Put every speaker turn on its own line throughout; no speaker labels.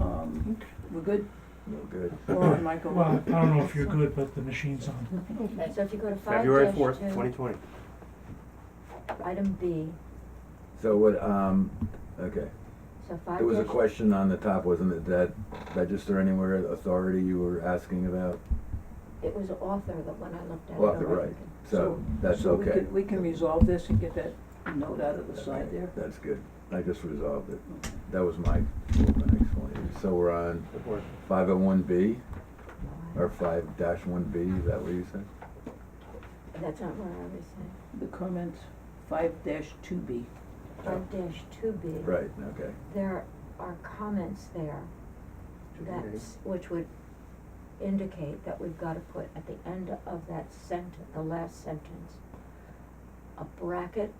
Um, We're good?
No good.
Or Michael?
Well, I don't know if you're good, but the machine's on.
Okay, so if you go to five
February
dash
fourth,
two,
twenty twenty.
Item B,
So what, um, okay,
so five
there was a
dash-
question on the top, wasn't it, that register anywhere authority you were asking about?
It was author, the one I looked at. it
Author,
over.
right, so that's
So we
okay.
can, we can resolve this and get that note out of the side there?
That's good, I just resolved it, that was my, my explanation, so we're on five oh one B, or five dash one B, is that what you said?
That's not what I was saying.
The comment five dash two B.
Five dash two B.
Right, okay,
There are comments there that's, which would indicate that we've gotta put at the end of that sentence, the last sentence, a bracket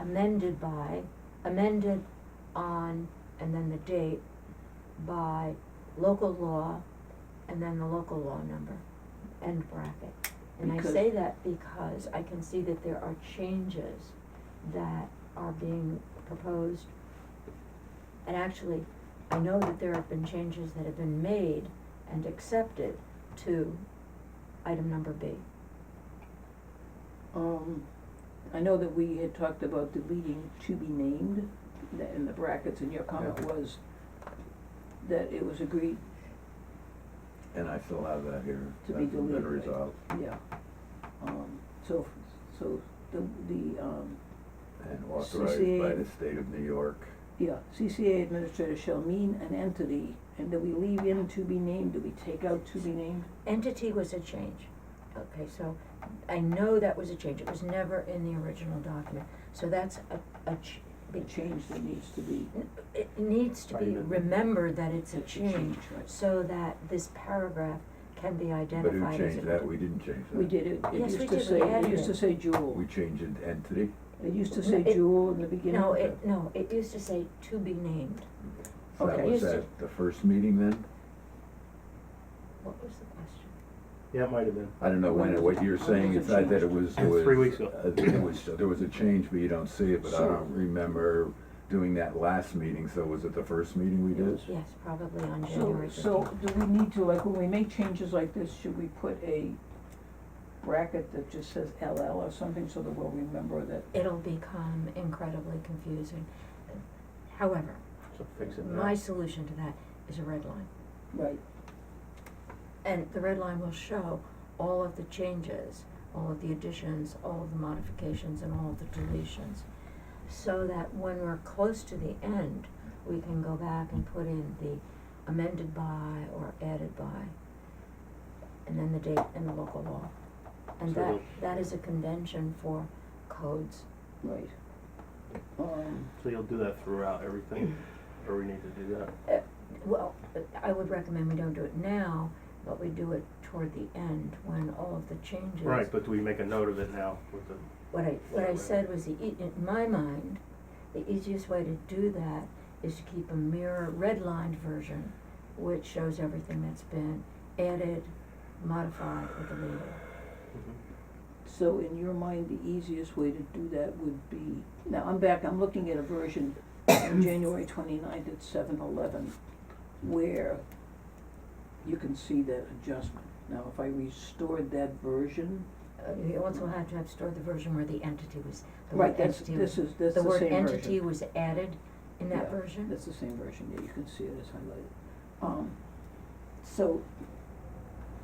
amended by, amended on, and then the date by local law, and then the local law number, end bracket. And I
Because-
say that because I can see that there are changes that are being proposed. And actually, I know that there have been changes that have been made and accepted to item number B.
Um, I know that we had talked about deleting to be named, that in the brackets, and your comment
Yeah.
was that it was agreed,
and I still have that here,
To
that's
be
been
deleted, right.
resolved,
yeah. Um, so, so the, the, um,
and authorized by the state of New York.
yeah, CCA administrator shall mean an entity, and do we leave in to be named, do we take out to be named?
Entity was a change. Okay, so I know that was a change. It was never in the original document. So that's a, a ch-
The change that needs to be.
it needs to be
Right.
remembered that it's a change
right.
so that this paragraph can be
But who
identified as
changed
an
that, we didn't change that.
We did it, it
Yes, we
used to
did, we
say, it
added
used to
it.
say jewel,
We changed it entity,
it used to
No,
say
it-
jewel in the beginning.
No, it, no, it used to say to be named.
so that
Okay.
was
Used to-
at the first meeting then?
What was the question?
Yeah, it might have been.
I don't know when, what you're saying, it's not that it was, it was.
Three weeks ago.
uh, It was, there was a change, but you don't see it, but I
So-
don't remember doing that last meeting, so was it the first meeting we did?
Yes, probably on
So,
January fifteenth.
so do we need to, like, when we make changes like this, should we put a bracket that just says LL or something so that we'll remember that?
It'll become incredibly confusing. However,
So fix it now.
my solution to that is a red line.
Right.
And the red line will show all of the changes, all of the additions, all of the modifications, and all of the deletions. So that when we're close to the end, we can go back and put in the amended by or added by, and then the date and the local law. And
So
that,
the-
that is a convention for codes.
Right. Um,
So you'll do that throughout everything, or we need to do that?
Uh, Well, uh, I would recommend we don't do it now, but we do it toward the end when all of the changes.
Right, but do we make a note of it now with the,
What I, what I
Right.
said was the, ea- in my mind, the easiest way to do that is to keep a mirror redlined version, which shows everything that's been added, modified, or deleted.
mm-hmm.
so in your mind, the easiest way to do that would be, now, I'm back, I'm looking at a version
Mm.
on January twenty-ninth at seven eleven, where you can see that adjustment. Now, if I restored that version,
Uh, You also have to have stored the version where the entity was, the
right,
word
that's,
entity was.
this is, that's the
The
same
word
version.
entity was added in
Yeah,
that version.
That's the same version, yeah, you can see it as highlighted. Um, so,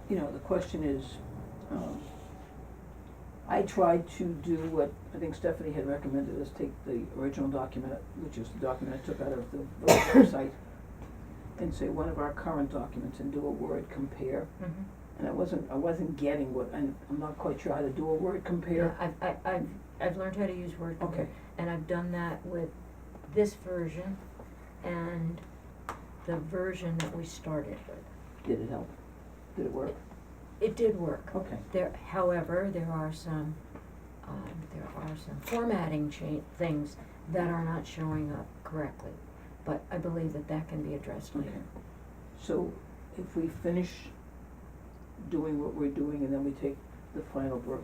you know, the question is, um, I tried to do what I think Stephanie had recommended, is take the original document, which is the document I took out of the village website, and say one of our current documents and do a word compare,
Mhm.
and I wasn't, I wasn't getting what, and I'm not quite sure how to do a word
Yeah,
compare.
I've, I, I've, I've learned how to use Word.
Okay,
And I've done that with this version and the version that we started with.
did it help? Did it work?
It did work.
Okay.
There, however, there are some, um, there are some formatting cha- things that are not showing up correctly. But I believe that that can be addressed
Okay.
later.
So if we finish doing what we're doing and then we take the final ver-